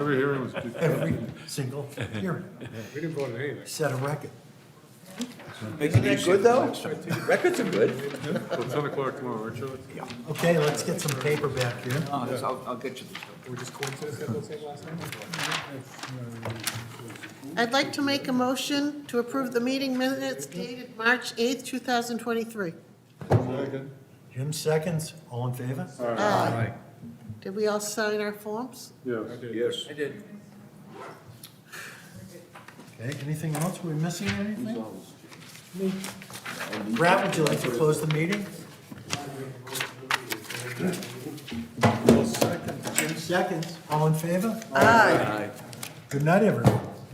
every hearing was, every single hearing. we didn't vote on anything. Set a record. Isn't that good, though? Records are good. Till 10 o'clock tomorrow, right, Charlie? Okay, let's get some paper back here. No, it's- I'll, I'll get you this. We just coincidence that those same last name? I'd like to make a motion to approve the meeting minutes dated March 8th, 2023. Jim seconds, all in favor? Aye. Did we all sign our forms? Yes. Yes. I did. Okay, anything else? we missing anything? Brad, would you like to close the meeting? Jim seconds, all in favor? Aye. Good night, everyone.